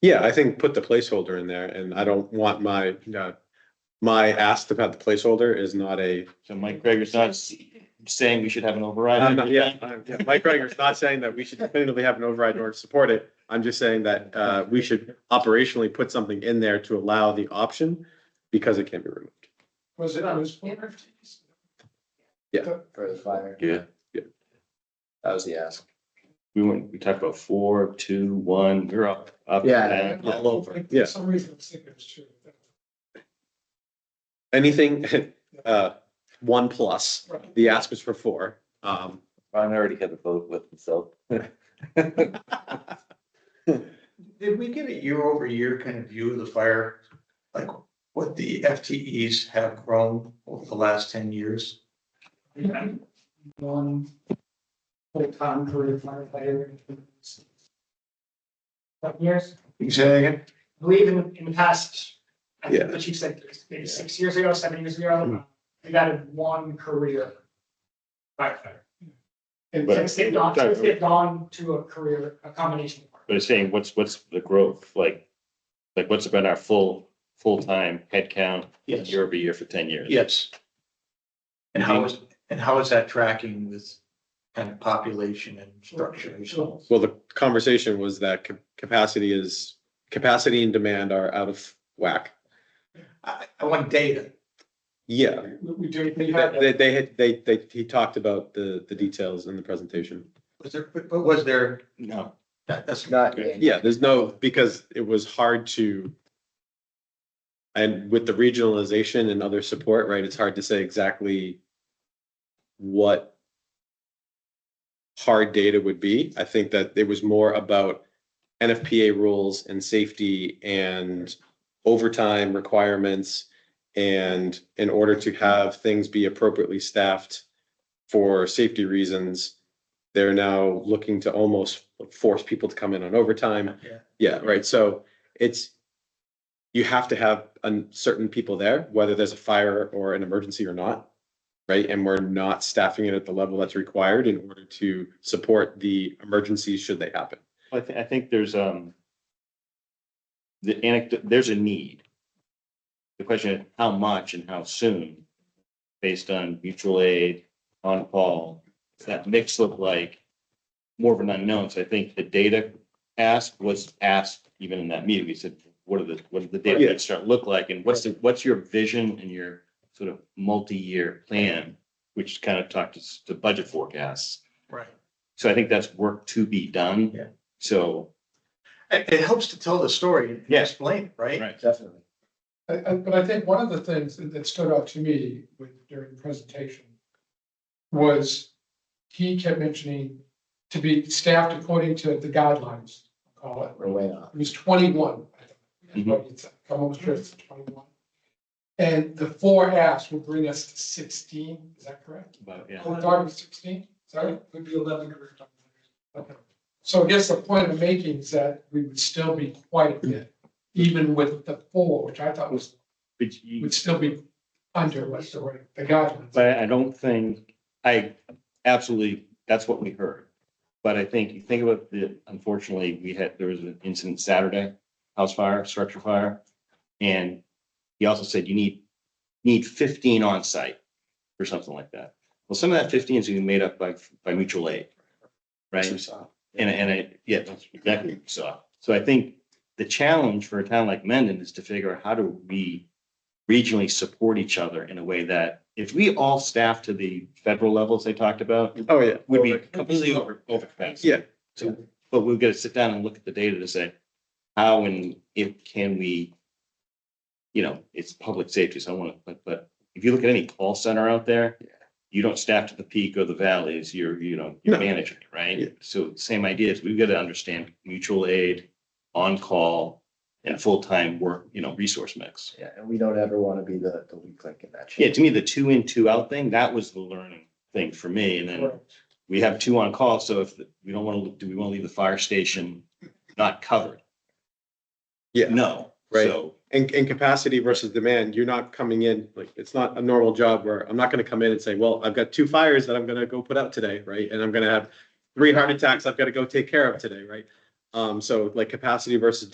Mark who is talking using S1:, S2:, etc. S1: Yeah, I think put the placeholder in there and I don't want my, uh, my ask about the placeholder is not a.
S2: So Mike Greger's not s- saying we should have an override.
S1: I'm not- Yeah, I'm- yeah, Mike Reiger's not saying that we should definitively have an override or support it. I'm just saying that, uh, we should operationally put something in there to allow the option because it can be removed.
S3: Was it, was.
S1: Yeah.
S3: For the fire.
S2: Yeah.
S1: Yeah.
S3: That was the ask.
S2: We went, we talked about four, two, one, we're up, up.
S3: Yeah.
S2: down, all over.
S1: Yeah.
S4: For some reason, I think it was true.
S1: Anything, uh, one plus,
S4: Right.
S1: the ask was for four. Um,
S5: Ron already had a vote with himself.
S6: Did we get a year over year kind of view of the fire? Like what the FTEs have grown over the last ten years?
S4: One full-time career firefighter. But yes,
S6: You say again?
S4: I believe in, in the past, I
S1: Yeah.
S4: think the chief said maybe six years ago, seven years ago, we added one career firefighter. And
S2: But-
S4: since they've gone, since they've gone to a career, a combination. of work.
S2: But it's saying, what's, what's the growth, like, like what's been our full, full-time headcount
S6: Yes,
S2: year over year for ten years?
S6: yes. And how is, and how is that tracking with kind of population and structure and so on?
S1: well, the conversation was that ca- capacity is, capacity and demand are out of whack.
S6: I, I want data.
S1: Yeah,
S4: We, we do, we had,
S1: They, they had, they, they, he talked about the, the details in the presentation.
S6: Was there, but was there,
S2: No.
S6: that, that's not,
S3: Not.
S2: Okay.
S1: Yeah, there's no, because it was hard to. And with the regionalization and other support, right, it's hard to say exactly what hard data would be. I think that it was more about NFPA rules and safety and overtime requirements. And in order to have things be appropriately staffed for safety reasons, they're now looking to almost force people to come in on overtime.
S6: Yeah.
S1: Yeah, right. So it's, you have to have un- certain people there, whether there's a fire or an emergency or not. Right? And we're not staffing it at the level that's required in order to support the emergencies should they happen.
S2: I thi- I think there's, um, the anecdote, there's a need. The question is how much and how soon, based on mutual aid, on call, does that mix look like? More of an unknown, so I think the data asked was asked even in that meeting, we said, what are the, what are the data
S1: Yeah.
S2: going to start look like? And what's the, what's your vision and your sort of multi-year plan, which kind of talked to, s- to budget forecasts.
S6: right.
S2: So I think that's work to be done.
S6: Yeah.
S2: So
S6: It, it helps to tell the story and
S2: Yeah.
S6: explain, it, right?
S2: Right.
S3: Definitely.
S4: I, I, but I think one of the things that, that stood out to me with, during the presentation was he kept mentioning to be staffed according to the guidelines, call it.
S3: We're way off.
S4: It was twenty-one. I think. I'm almost sure it's twenty-one. And the four asks will bring us to sixteen, is that correct?
S2: But yeah,
S4: Oh, Darby, sixteen, sorry, would be eleven. career time. Okay. So I guess the point I'm making is that we would still be quite a bit, even with the four, which I thought was,
S2: but you,
S4: would still be under what's the right, the guidelines.
S2: but I don't think, I absolutely, that's what we heard. But I think, you think about the, unfortunately, we had, there was an incident Saturday, house fire, structure fire. And he also said you need, need fifteen on site or something like that. Well, some of that fifteen is gonna be made up by, by mutual aid. Right? And, and I, yeah, that's exactly what we saw. So I think the challenge for a town like Mendon is to figure out how do we regionally support each other in a way that if we all staff to the federal levels they talked about,
S1: Oh, yeah.
S2: would be completely over, over capacity.
S1: Yeah.
S2: So, but we've got to sit down and look at the data to say, how and if can we, you know, it's public safety, so I want to, but, but if you look at any call center out there, you don't staff to the peak or the valleys, you're, you know, you're
S1: No.
S2: managing, it,
S1: Yeah.
S2: right? So same ideas, we've got to understand mutual aid, on-call, and full-time work, you know, resource mix.
S3: Yeah, and we don't ever want to be the, the weak link in that
S2: Yeah,
S3: chain.
S2: to me, the two in, two out thing, that was the learning thing for me, and then we have two on call, so if, the- we don't want to, do we want to leave the fire station not covered?
S1: Yeah.
S2: No.
S1: Right.
S2: So,
S1: And, and capacity versus demand, you're not coming in, like, it's not a normal job where I'm not gonna come in and say, well, I've got two fires that I'm gonna go put out today, right? And I'm gonna have three heart attacks I've gotta go take care of today, right? Um, so like capacity versus